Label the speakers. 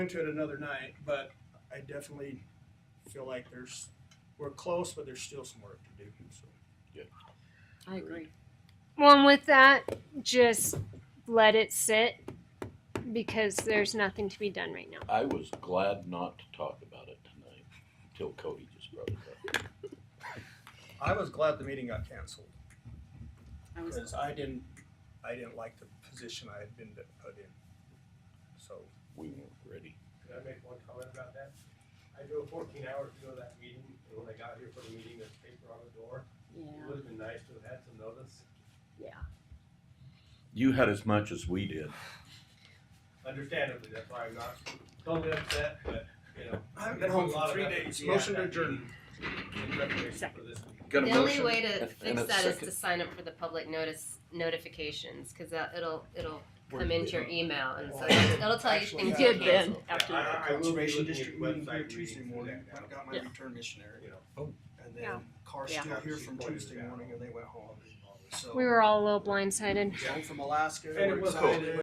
Speaker 1: into it another night, but I definitely feel like there's, we're close, but there's still some work to do, so.
Speaker 2: I agree.
Speaker 3: Well, and with that, just let it sit because there's nothing to be done right now.
Speaker 4: I was glad not to talk about it tonight until Cody just brought it up.
Speaker 1: I was glad the meeting got canceled,
Speaker 2: I was
Speaker 1: because I didn't, I didn't like the position I had been put in, so.
Speaker 4: We weren't ready.
Speaker 5: Can I make one comment about that? I drove fourteen hours to go to that meeting, and when I got here for the meeting, there's paper on the door.
Speaker 2: yeah.
Speaker 5: It would have been nice to have had some notice.
Speaker 4: You had as much as we did.
Speaker 5: Understandably, that's why I'm not totally upset, but, you know.
Speaker 1: I haven't been home
Speaker 5: a lot
Speaker 1: for three
Speaker 5: of effort
Speaker 1: days.
Speaker 5: to be at
Speaker 1: Motion to
Speaker 5: that
Speaker 1: adjourn.
Speaker 5: meeting In preparation for this meeting.
Speaker 4: Got a
Speaker 6: The only
Speaker 4: motion
Speaker 6: way to
Speaker 4: and- and
Speaker 6: fix
Speaker 4: a
Speaker 6: that is
Speaker 4: second.
Speaker 6: to sign up for the public notice notifications, cause that, it'll, it'll
Speaker 4: Where's
Speaker 6: come into
Speaker 4: the-
Speaker 6: your email and so
Speaker 1: Well,
Speaker 6: it'll it'll tell you
Speaker 1: Oh, actually,
Speaker 6: things
Speaker 1: yeah.
Speaker 6: you
Speaker 1: Good
Speaker 6: can't.
Speaker 2: then, after
Speaker 5: Yeah, I-
Speaker 2: that.
Speaker 5: I will be
Speaker 1: Conservation
Speaker 5: looking at
Speaker 1: District meeting here
Speaker 5: website
Speaker 1: Tuesday
Speaker 5: readings for
Speaker 1: morning,
Speaker 5: that
Speaker 1: I
Speaker 5: now.
Speaker 1: got my
Speaker 2: Yeah.
Speaker 1: return missionary,
Speaker 5: You know,
Speaker 1: and
Speaker 3: Yeah.
Speaker 1: then car's
Speaker 2: Yeah.
Speaker 1: still here from
Speaker 5: She pointed it
Speaker 1: Tuesday
Speaker 5: out.
Speaker 1: morning and they went home, so.
Speaker 3: We were all a little blindsided.
Speaker 1: Home from Alaska,
Speaker 5: And
Speaker 1: we're
Speaker 5: it was-
Speaker 1: excited.